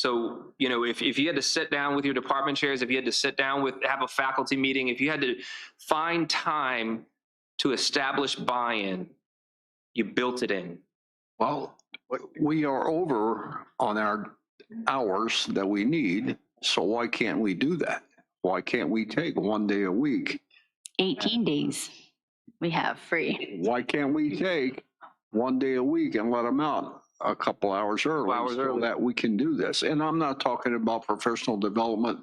So, you know, if, if you had to sit down with your department chairs, if you had to sit down with, have a faculty meeting, if you had to find time to establish buy-in, you built it in. Well, we are over on our hours that we need, so why can't we do that? Why can't we take one day a week? 18 days we have free. Why can't we take one day a week and let them out a couple hours early? Hours so early. That we can do this. And I'm not talking about professional development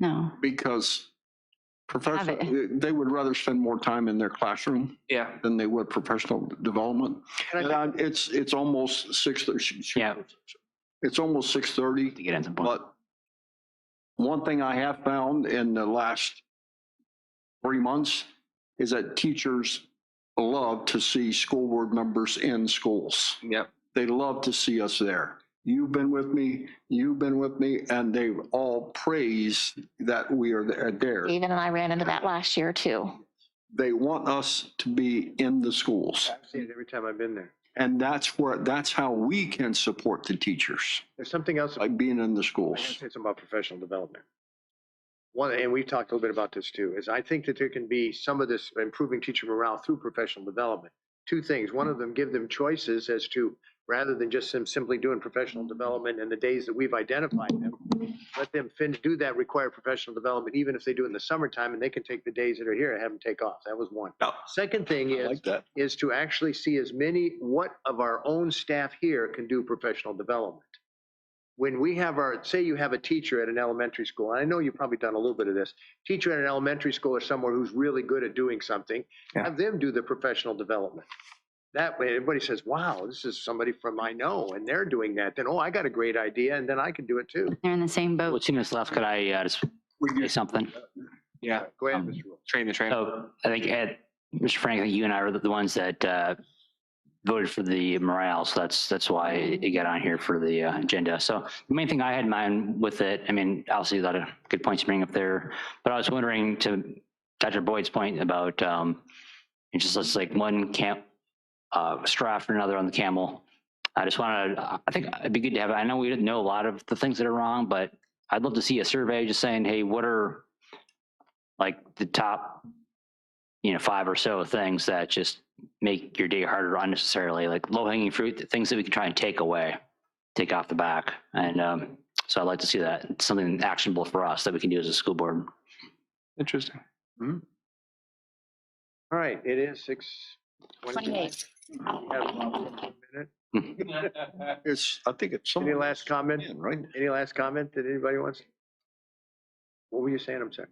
No, because professional, Have they would rather spend more time in their classroom Yeah. than they would professional development. I And I- it's, it's almost six, Yeah. it's almost six thirty. to get at some point. But one thing I have found in the last three months is that teachers love to see school board members in schools. Yep. They love to see us there. You've been with me, you've been with me, and they all praise that we are th- there. David and I ran into that last year too. They want us to be in the schools. I've seen it every time I've been there. And that's where, that's how we can support the teachers, There's something else. by being in the I schools. gotta say something about professional development. One, and we've talked a little bit about this too, is I think that there can be some of this improving teacher morale through professional development. Two things. One of them, give them choices as to, rather than just them simply doing professional development and the days that we've identified them, let them fin, do that required professional development, even if they do it in the summertime, and they can take the days that are here and have them take off. That was one. Yeah. Second thing I is, like that. is to actually see as many, what of our own staff here can do professional development. When we have our, say you have a teacher at an elementary school, and I know you've probably done a little bit of this, teacher at an elementary school or somewhere who's really good at doing something, Yeah. have them do the professional development. That way, everybody says, wow, this is somebody from I know, and they're doing that. Then, oh, I got a great idea, and then I can do it too. they're in the same boat. Two minutes left, could I uh, just say something? Yeah. Go ahead, Um, Mr. Rule. Train the train. So Oh, I think, Ed, Mr. Frank, I think you and I are the ones that uh, voted for the morale, so that's, that's why it got on here for the uh, agenda. So the main thing I had in mind with it, I mean, obviously a lot of good points to bring up there, but I was wondering to Dr. Boyd's point about, um, it's just it's like one camp, uh, straw after another on the camel. I just wanted, I think it'd be good to have, I know we didn't know a lot of the things that are wrong, but I'd love to see a survey just saying, hey, what are like the top you know five or so things that just make your day harder unnecessarily like low hanging fruit the things that we can try and take away take off the back and um, so i'd like to see that It's something actionable for us that we can do as a school board Interesting. All right, it is six twenty-nine. Twenty-eight. It's, I think it's. Any somewhere last comment? in, Right? Any last comment that anybody wants? What were you saying? I'm sorry.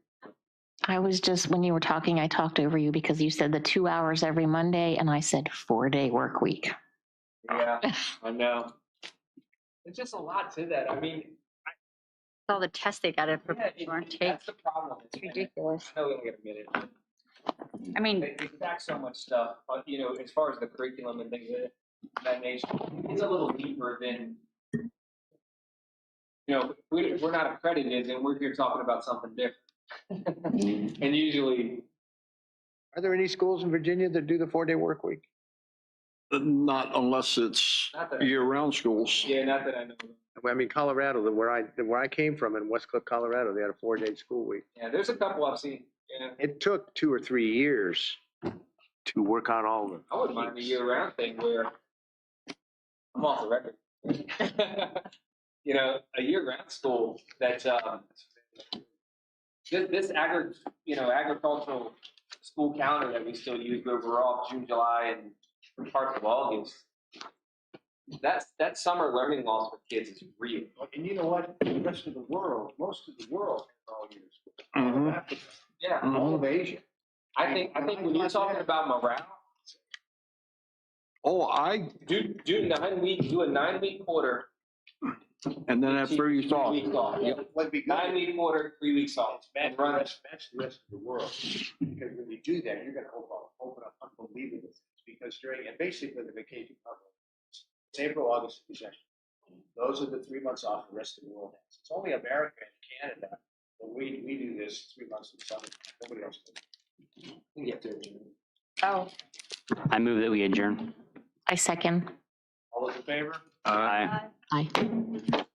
I was just, when you were talking, I talked over you because you said the two hours every Monday and I said four day work week. Yeah, I know. There's just a lot to that. I mean, All the tests they got to yeah, prepare for and it- take. that's the problem. It's It's minute- ridiculous. I know we only got a minute. I mean, They they stack so much stuff, but you know, as far as the curriculum and things of that nature, it's a little deeper than. You know, we, we're not accredited and we're here talking about something different. And usually, Are there any schools in Virginia that do the four-day work week? Not unless it's not that, year-round schools. yeah, not that I know. of. I mean, Colorado, the- where I, where I came from in West Cliff, Colorado, they had a four-day school week. Yeah, there's a couple I've seen, you know, It took two or three years to work on all of them. I wouldn't mind the year-round thing where I'm off the record. you know, a year-round school that um, this, this agri, you know, agricultural school calendar that we still use, where we're off June, July, and parts of August. That's that summer learning loss for kids is real. And you know what? The rest of the world, most of the world, all years. Mhm. Mm-hmm. Yeah, All of Asia. I think I think when you're talking about morale, Oh, I, do do nine week, do a nine week quarter. and then after you three thought, weeks off. Would be Nine week quarter, three weeks off. Match And the run it. rest, match the rest of the world, because when you do that, you're gonna open up, open up unbelievable things, because during, and basically the vacation cover. It's April, August, and December. Those are the three months off the rest of the world has. It's only America and Canada, but we, we do this three months in summer, nobody else does. Oh. i move that we adjourn I second. All those in favor? Aye. Aye.